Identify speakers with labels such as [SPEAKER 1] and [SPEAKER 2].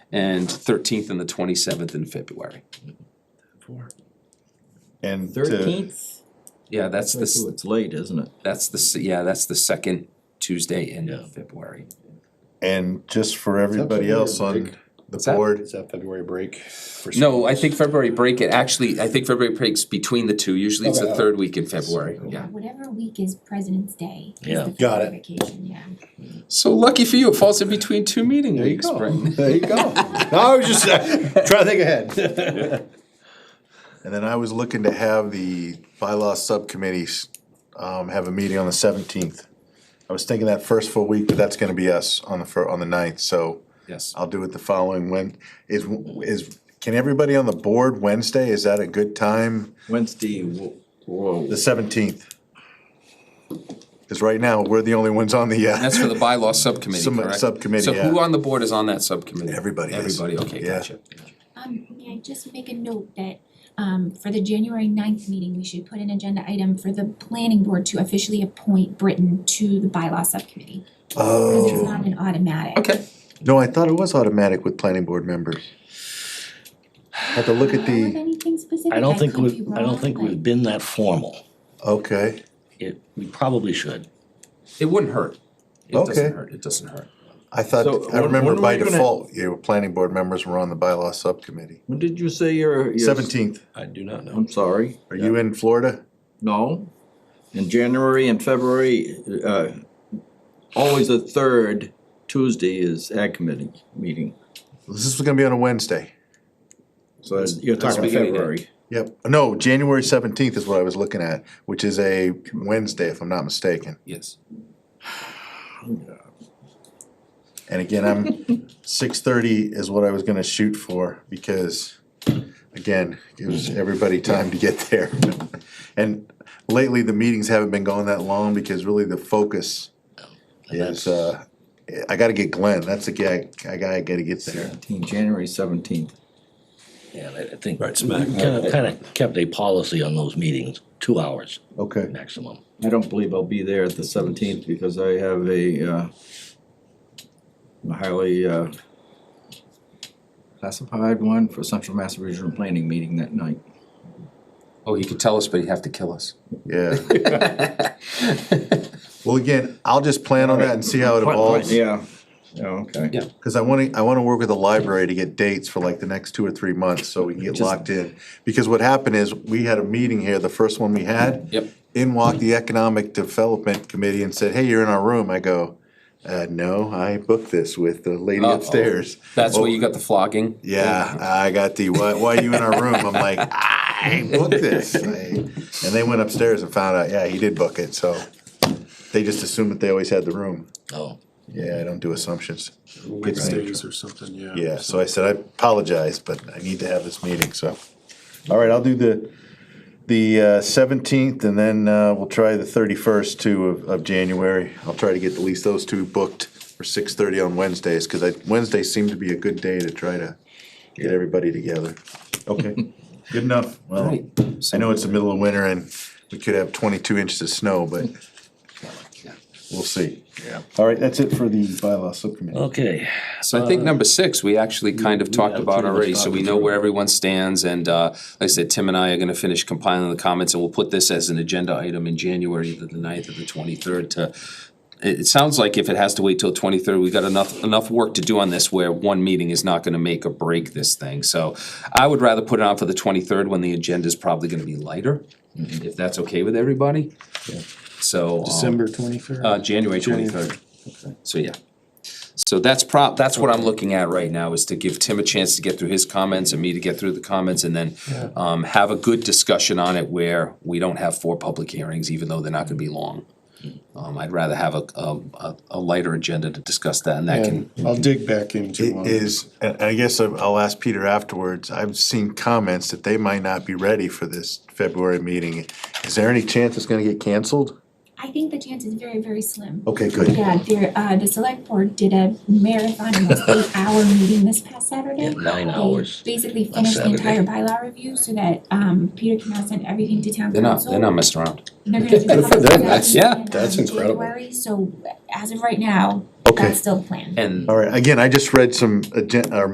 [SPEAKER 1] and thirteenth and the twenty-seventh in February.
[SPEAKER 2] And to,
[SPEAKER 3] Thirteenth?
[SPEAKER 1] Yeah, that's the, s-
[SPEAKER 3] It's late, isn't it?
[SPEAKER 1] that's the, s- yeah, that's the second Tuesday in
[SPEAKER 4] Yeah.
[SPEAKER 1] February.
[SPEAKER 2] and just for everybody else on the
[SPEAKER 1] What's that?
[SPEAKER 2] board,
[SPEAKER 4] Is that February break? for
[SPEAKER 1] No, I
[SPEAKER 4] schools?
[SPEAKER 1] think February break, it actually, I think February breaks between the two, usually it's the
[SPEAKER 4] Okay.
[SPEAKER 1] third week in February, yeah.
[SPEAKER 5] Whatever week is President's Day is
[SPEAKER 3] Yeah.
[SPEAKER 5] the
[SPEAKER 4] Got
[SPEAKER 5] February vacation, yeah.
[SPEAKER 1] So lucky for you, it falls in between two meeting
[SPEAKER 4] There you
[SPEAKER 1] weeks,
[SPEAKER 4] go.
[SPEAKER 1] Brendan.
[SPEAKER 4] There you go. No, I was just uh, trying to think ahead.
[SPEAKER 2] and then I was looking to have the bylaw subcommittees, um, have a meeting on the seventeenth. I was thinking that first full week, but that's gonna be us on the fir, on the ninth, so
[SPEAKER 1] Yes,
[SPEAKER 2] I'll do it the following Wed. Is, is, can everybody on the board Wednesday, is that a good time?
[SPEAKER 3] Wednesday, whoa,
[SPEAKER 2] The
[SPEAKER 3] whoa.
[SPEAKER 2] seventeenth? Cause right now, we're the only ones on the,
[SPEAKER 1] that's
[SPEAKER 2] uh,
[SPEAKER 1] for the bylaw subcommittee,
[SPEAKER 2] Some-
[SPEAKER 1] correct?
[SPEAKER 2] subcommittee,
[SPEAKER 1] So who
[SPEAKER 2] yeah.
[SPEAKER 1] on the board is on that subcommittee?
[SPEAKER 2] Everybody is.
[SPEAKER 1] Everybody, okay,
[SPEAKER 2] Yeah.
[SPEAKER 1] gotcha.
[SPEAKER 5] Um, may I just make a note that, um, for the January 9th meeting, we should put an agenda item for the planning board to officially appoint Britain to the bylaw subcommittee. Because it's
[SPEAKER 2] oh,
[SPEAKER 5] not an automatic.
[SPEAKER 1] Okay,
[SPEAKER 2] no, I thought it was automatic with planning board members. Had to look at
[SPEAKER 5] Do you know of
[SPEAKER 2] the,
[SPEAKER 5] anything specific?
[SPEAKER 4] I don't think
[SPEAKER 5] could
[SPEAKER 4] we've,
[SPEAKER 5] be
[SPEAKER 4] I don't
[SPEAKER 5] wrong,
[SPEAKER 4] think
[SPEAKER 5] but-
[SPEAKER 4] we've been that formal.
[SPEAKER 2] okay,
[SPEAKER 4] It, we probably should.
[SPEAKER 1] it wouldn't hurt. It
[SPEAKER 2] Okay.
[SPEAKER 1] doesn't hurt, it doesn't hurt.
[SPEAKER 2] I
[SPEAKER 3] So,
[SPEAKER 2] thought, I
[SPEAKER 3] when-
[SPEAKER 2] remember
[SPEAKER 3] when are
[SPEAKER 2] by
[SPEAKER 3] we gonna-
[SPEAKER 2] default, you were planning board members were on the bylaw subcommittee.
[SPEAKER 3] When did you say your?
[SPEAKER 2] Seventeenth,
[SPEAKER 6] I do not know.
[SPEAKER 3] I'm sorry,
[SPEAKER 2] are you in Florida?
[SPEAKER 3] no. In January and February, uh, always the third Tuesday is ag committee meeting.
[SPEAKER 2] This is gonna be on a Wednesday.
[SPEAKER 3] So it's- you're talking
[SPEAKER 1] beginning of-
[SPEAKER 3] February.
[SPEAKER 2] Yep, no, January seventeenth is what I was looking at, which is a Wednesday, if I'm not mistaken.
[SPEAKER 1] Yes.
[SPEAKER 2] And again, I'm, six thirty is what I was gonna shoot for, because, again, gives everybody time to get there. And lately, the meetings haven't been going that long, because really the focus is, uh, I gotta get Glenn, that's the guy, I gotta, I gotta get there.
[SPEAKER 3] Seventeenth, January seventeenth.
[SPEAKER 7] Yeah, I I think
[SPEAKER 6] Right smack.
[SPEAKER 7] kind of, kind of kept a policy on those meetings, two hours
[SPEAKER 2] Okay.
[SPEAKER 7] maximum.
[SPEAKER 3] I don't believe I'll be there at the seventeenth because I have a, uh, a highly, uh, classified one for Central Mass Regional Planning meeting that night.
[SPEAKER 1] Oh, he could tell us, but he'd have to kill us.
[SPEAKER 2] Yeah. Well, again, I'll just plan on that and see how it evolves,
[SPEAKER 3] Yeah, yeah, okay.
[SPEAKER 1] Yeah.
[SPEAKER 2] cause I wanna, I wanna work with the library to get dates for like the next two or three months, so we can get locked in. Because what happened is, we had a meeting here, the first one we had.
[SPEAKER 1] Yep.
[SPEAKER 2] In walked the Economic Development Committee and said, hey, you're in our room, I go, uh, no, I booked this with the lady
[SPEAKER 1] Uh-oh.
[SPEAKER 2] upstairs.
[SPEAKER 1] That's where
[SPEAKER 2] "Oh,
[SPEAKER 1] you got the flogging?
[SPEAKER 2] Yeah, I got the, why, why are you in our room, I'm like, I booked this. I- And they went upstairs and found out, yeah, he did book it, so, they just assumed that they always had the room.
[SPEAKER 7] Oh,
[SPEAKER 2] Yeah, I don't do assumptions.
[SPEAKER 8] Wednesdays or something, yeah.
[SPEAKER 2] Yeah, so I said, I apologize, but I need to have this meeting, so. All right, I'll do the, the uh, seventeenth, and then uh, we'll try the thirty-first too of, of January. I'll try to get at least those two booked for six-thirty on Wednesdays, because I, Wednesdays seem to be a good day to try to get everybody together. Okay, good enough. Well,
[SPEAKER 1] Right.
[SPEAKER 2] I know it's the middle of winter and we could have twenty-two inches of snow, but we'll see. Yeah. All right, that's it for the bylaw subcommittee.
[SPEAKER 7] okay.
[SPEAKER 1] So I think number six, we actually kind of talked
[SPEAKER 7] yeah,
[SPEAKER 1] about
[SPEAKER 7] pretty much
[SPEAKER 1] already, so we
[SPEAKER 7] talked
[SPEAKER 1] know
[SPEAKER 7] through.
[SPEAKER 1] where everyone stands, and, uh, like I said, Tim and I are gonna finish compiling the comments, and we'll put this as an agenda item in January, either the ninth or the twenty-third to, it, it sounds like if it has to wait till twenty-third, we've got enough, enough work to do on this where one meeting is not gonna make or break this thing, so I would rather put it on for the twenty-third when the agenda's probably gonna be lighter, if that's okay with everybody. So. um,
[SPEAKER 8] December twenty-third?
[SPEAKER 1] uh, January twenty-third. So, yeah. So that's prop, that's what I'm looking at right now, is to give Tim a chance to get through his comments and me to get through the comments and then um, have a good discussion on it where we don't have four public hearings, even though they're not gonna be long. Um, I'd rather have a, a, a lighter agenda to discuss that and that can,
[SPEAKER 8] And I'll dig back into.
[SPEAKER 2] It
[SPEAKER 8] um,
[SPEAKER 2] is, and I guess I'll I'll ask Peter afterwards, I've seen comments that they might not be ready for this February meeting. Is there any chance it's gonna get canceled?
[SPEAKER 5] I think the chance is very, very slim.
[SPEAKER 2] Okay, good.
[SPEAKER 5] Yeah, there, uh, the select board did a marathon, almost eight-hour meeting this past Saturday.
[SPEAKER 7] Nine
[SPEAKER 5] They
[SPEAKER 7] hours.
[SPEAKER 5] Basically finished the
[SPEAKER 7] Saturday.
[SPEAKER 5] entire bylaw review so that, um, Peter can now send everything to town
[SPEAKER 1] they're not,
[SPEAKER 5] council.
[SPEAKER 1] they're not messing around.
[SPEAKER 5] They're gonna do
[SPEAKER 8] Good for
[SPEAKER 5] public
[SPEAKER 8] them.
[SPEAKER 5] hearing
[SPEAKER 1] That's- yeah,
[SPEAKER 5] in,
[SPEAKER 8] that's
[SPEAKER 5] um,
[SPEAKER 8] incredible.
[SPEAKER 5] January, so as of right now,
[SPEAKER 2] Okay.
[SPEAKER 5] that's still the plan.
[SPEAKER 1] And
[SPEAKER 2] All right, again, I just read some uh, agenda, or